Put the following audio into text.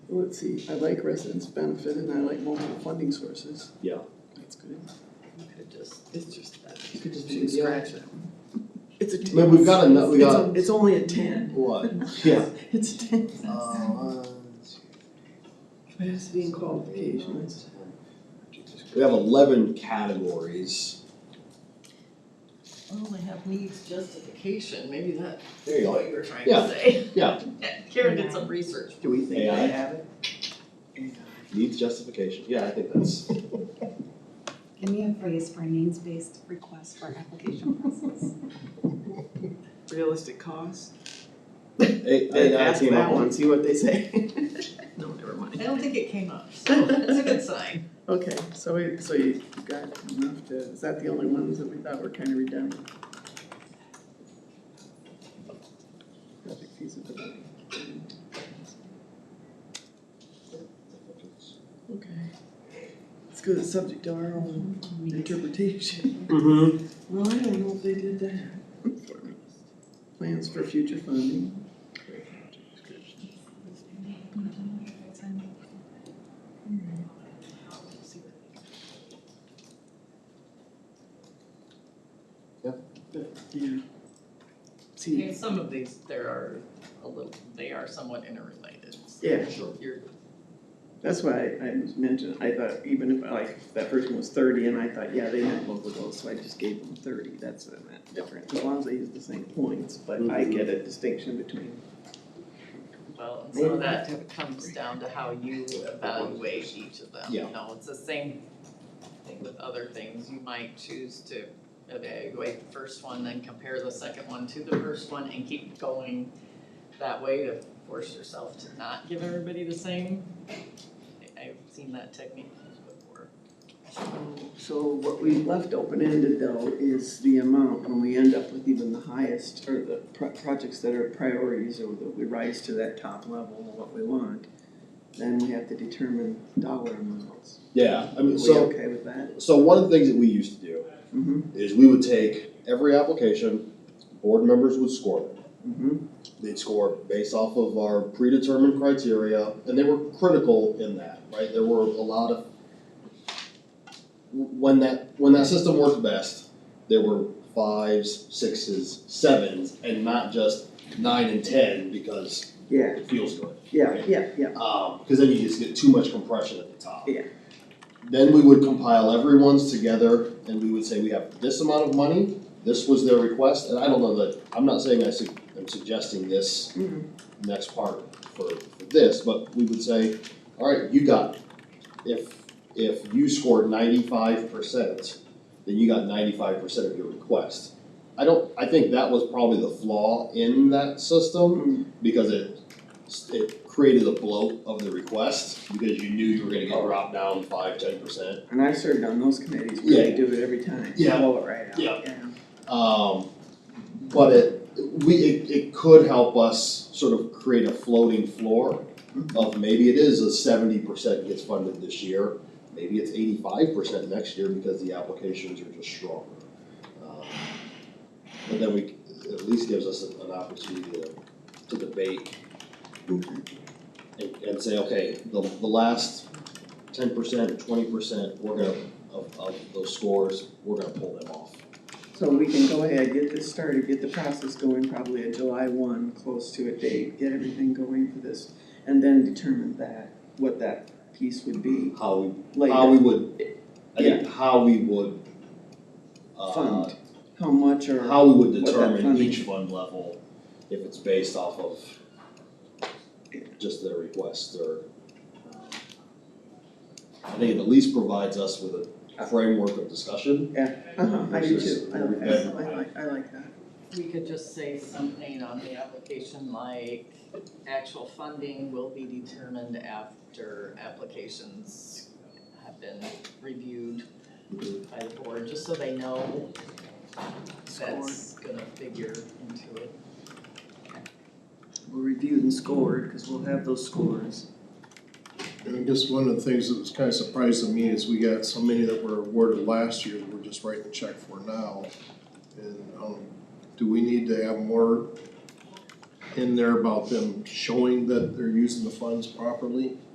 let's see, I like residents benefit and I like multiple funding sources. Yeah. That's good. You could just, it's just that. You could just Should we scratch that one. It's a ten. But we've got enough- we It's- got- It's only a ten. What? Yeah. It's a ten. Uh, Oh, one, two, Capacity and qualifications. We have eleven categories. Oh, I have needs justification, maybe that's There you what go. you were trying Yeah, to say. yeah. Karen did some research. Do we think AI? they have it? Needs justification. Yeah, I think that's. Give me a phrase for a needs-based request for application process. Realistic cost? Hey, They I, I asked came that up one, with. see what they say. No, never mind. I don't think it came up, so that's a good sign. Okay, so we, so you got enough to, is that the only ones that we thought were kind of redundant? Project feasibility. Okay. Let's go to subject to our own interpretation. Mm-hmm. Well, I don't know if they did that. Plans for future funding. Yeah. See, And some of these, there are a little, they are somewhat interrelated. yeah, Sure. You're, that's why I was mentioning, I thought even if, like, if that person was thirty and I thought, yeah, they meant both of those, so I just gave them thirty, that's what I meant, different. As long as they use the same points, but I get a distinction between, well, and so that comes down to how you evaluate each of them, you Yeah. know, it's the same thing with other things, you might choose to evaluate the first one, then compare the second one to the first one and keep going that way to force yourself to not give everybody the same. I- I've seen that technique used before. so what we left open-ended though is the amount, when we end up with even the highest, or the pro- projects that are priorities, or that we rise to that top level of what we want, then we have to determine dollar amounts. Yeah, I Are mean, we so, okay with that? so one of the things that we used to do Mm-hmm, is we would take every application, board members would score them. mm-hmm, They'd score based off of our predetermined criteria, and they were critical in that, right? There were a lot of, when that, when that system worked best, there were fives, sixes, sevens, and not just nine and ten because yeah, it feels good. yeah, yeah, yeah. because Um, then you just get too much compression at the top. Yeah. Then we would compile everyone's together and we would say we have this amount of money, this was their request, and I don't know that, I'm not saying I su- I'm suggesting this Mhm. next part for, for this, but we would say, all right, you got, it. if, if you scored ninety-five percent, then you got ninety-five percent of your request. I don't, I think that was probably the flaw in that Mm. system, because it it created a bloat of the request because you knew you were gonna get dropped down five, ten percent. And I served on those committees where they Yeah. do it every time, Yeah. blow it right out, Yeah. yeah. Um, but it, we, it, it could help us sort of create a floating floor of maybe it is a seventy percent gets funded this year, maybe it's eighty-five percent next year because the applications are just stronger. Um, But then we, at least gives us an an opportunity to, to debate and, and say, okay, the, the last ten percent, twenty percent, we're gonna, of, of those scores, we're gonna pull them off. So we can go ahead, get this started, get the process going, probably a July one, close to a date, get everything going for this, and then determine that, what that piece would be How we, how we later. would, I think how we would, uh, Fund, how much or, how we would What that determine funding- each fund level, if it's based off of just their request or. um, I think it at least provides us with a framework of discussion. uh-huh, I do too, I like, I like- I like, I like that. We could just say something on the application like, actual funding will be determined after applications have been reviewed by the board, just so they know that's gonna figure into it. We'll review and scored, cause we'll have those scores. And I guess one of the things that was kind of surprising to me is we got so many that were awarded last year that we're just writing a check for now. And, um, do we need to have more in there about them showing that they're using the funds properly.